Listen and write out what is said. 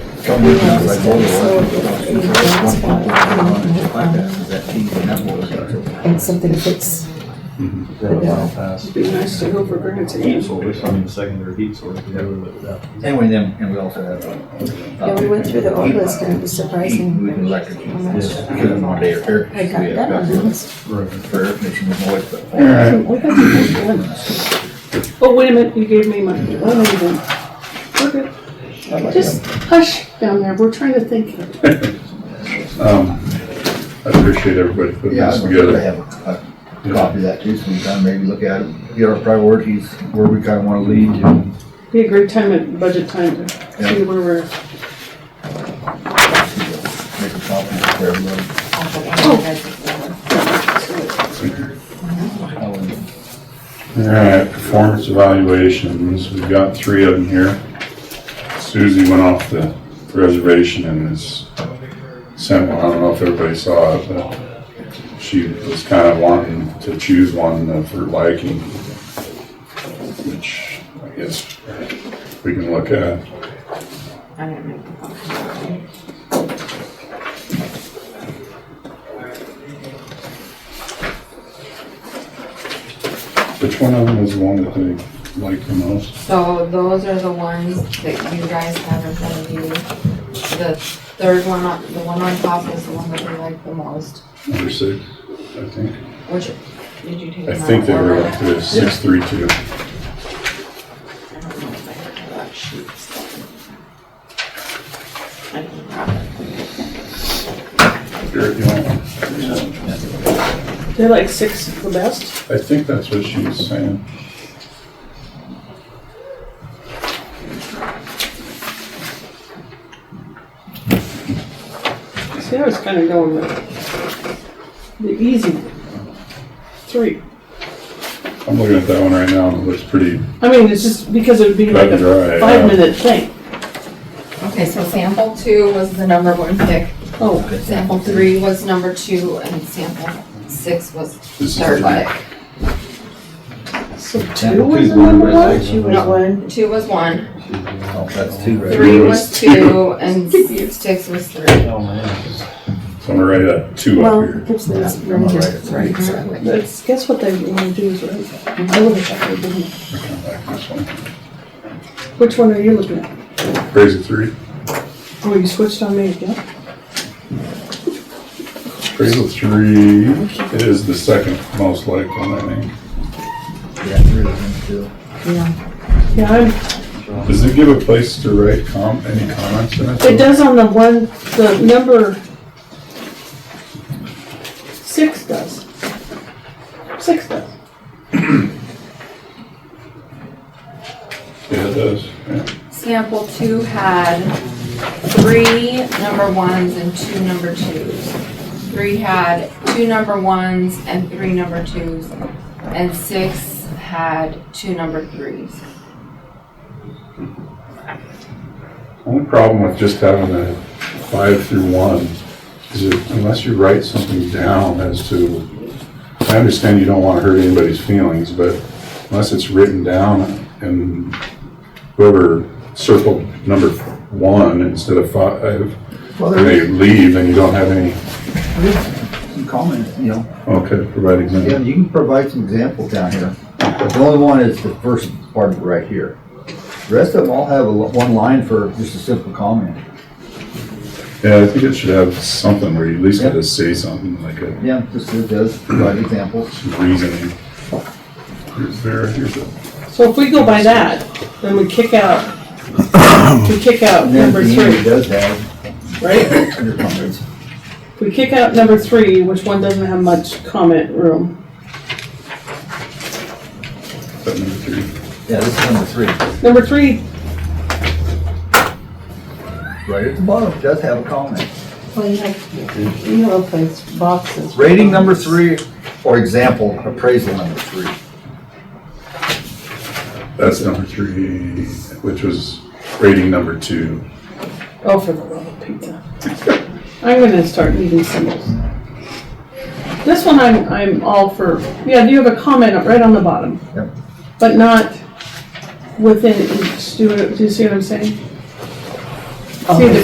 Some weekends, like, all the ones, the first one people that are on it, like that, is that team, and that one. and something fits. That was all passed. Be nice to go for granted. heat source, I mean, secondary heat source, we never lived without. Anyway, then, and we also have. uh, Yeah, we went through the old list and it was surprising. Heat, We would like to keep this, because of our air- air- I got we that have on the list. For air conditioning, noise, but. We got the old ones. Oh, wait a minute, you gave me my, oh, no, you didn't. We're good. I'd like to Just hush down there, we're trying to think. Um, I appreciate everybody putting Yeah, this I'd love to together. have a- a copy of that too, so we can maybe look at it, get our priorities, where we kinda wanna lead to. Be a great time at budget time to see Yeah. where we're, Make a copy for everybody. Oh. I would- All right, performance evaluations, we've got three of them here. Susie went off the reservation and has sent one, I don't know if everybody saw it, but she was kind of wanting to choose one of her liking, which I guess we can look at. Which one of them was the one that they liked the most? So those are the ones that you guys have in front of you. The third one, on- the one on top is the one that we like the most, Number six, I think. which, did you take? I them out think they of were order? up to six, three, two. I don't know if I have that sheet. I don't have it. Garrett, you want one? they're like six the best. I think that's what she was saying. See, I was kind of going with the easy three. I'm looking at that one right now, and it looks pretty, I mean, it's just because it would be like Cut and dry, a yeah. five-minute thing. Okay, so sample two was the number one pick, Oh, sample three was number two, and sample six was This is third three. pick. so two Sample was two, the one number red one? light, one Not one. Two was one, Oh, that's two, right? three Three was was two. two, and six was three. Oh, man. so I'm gonna write that two Well, up here. it gives them this I'm room all to- right, it's right. That's, guess what they want to do is right. I would have thought they didn't. I like this one. Which one are you looking at? Crazy three, Oh, you switched on me again? crazy three is the second most liked one, I think. Yeah, three of them too. Yeah, I'm, Does it give a place to write com, any comments in it? it does on the one, the number six does. Six does. Yeah, it does, yeah. Sample two had three number ones and two number twos. Three had two number ones and three number twos, and six had two number threes. Only problem with just having a five through one is that unless you write something down as to, I understand you don't want to hurt anybody's feelings, but unless it's written down and whoever circled number one instead of five, Well, and there they is, leave and you don't have any, there is some comment, you know, okay, provide yeah, example. you can provide some examples down here. But the only one is the first part of it right here. The rest of them all have a li- one line for just a simple comment. Yeah, I think it should have something where you at least got to say something like a Yeah, just it does provide examples. reasoning. Here's there, here's a, So if we go by that, then we kick out, we kick out And then number at the end, it three, does have right? your comments. If we kick out number three, which one doesn't have much comment room. that number three. Yeah, this is number three. Number three, Right at the bottom, it does have a comment. Well, you have, you have a place, boxes. Rating number three, or example, appraisal number three. That's number three, which was rating number two. oh, for the love of pizza. I'm gonna start needing symbols. This one I'm, I'm all for, yeah, do you have a comment up right on the bottom? Yep. But not within each, do you, do you see what I'm saying? See, the